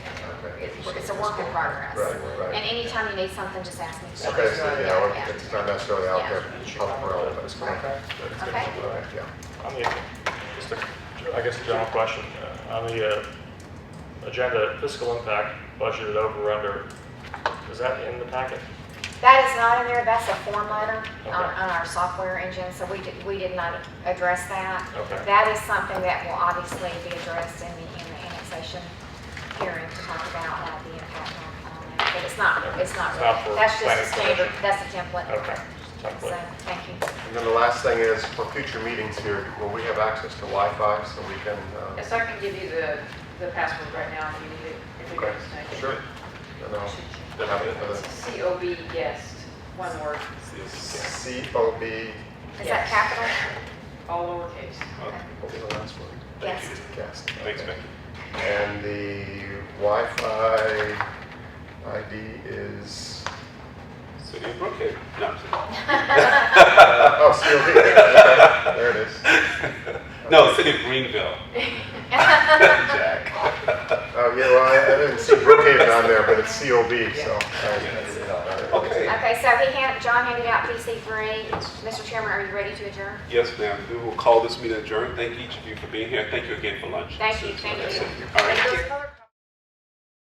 it's a work in progress. Right, right. And anytime you need something, just ask me. Okay, so, you know, Yeah, it's not necessarily out there, public realm, but it's going Okay. Okay. Yeah. On the, just a, I guess a general question, uh, on the uh, agenda, fiscal impact, budgeted over under, is that in the packet? That is not in there, that's a form letter on, Okay. on our software engine, so we did, we did not address that. Okay. That is something that will obviously be addressed in the, in the annexation hearing to talk about uh, the impact on, on that. But it's not, it's not, It's really- not for that's just a planning standard, commission. that's a template. Okay, just a So, template. thank you. And then the last thing is, for future meetings here, will we have access to Wi-Fi so we can, uh, Yes, I can give you the, the password right now if you need it. if you okay, guys sure. And I'll then have it uh, for know. the COB guest, one word, COB, Is that Yes. capital? all lowercase. what was the last word? Yes. Cast. Thanks, Becky. And the Wi-Fi ID is, City of Brookhaven. No, I'm sorry. oh, COB, okay, there it is. No, City of Greenville. Jack. Oh, yeah, well, I- I didn't see Brookhaven on there, but it's COB, so. uh, Okay. Okay, so he hand John handed out PC three. Mr. Chairman, are you ready to adjourn? Yes, ma'am. We will call this meeting adjourned. Thank each of you for being here. Thank you again for lunch. Thank you, thank That's you. it. All right. And those color-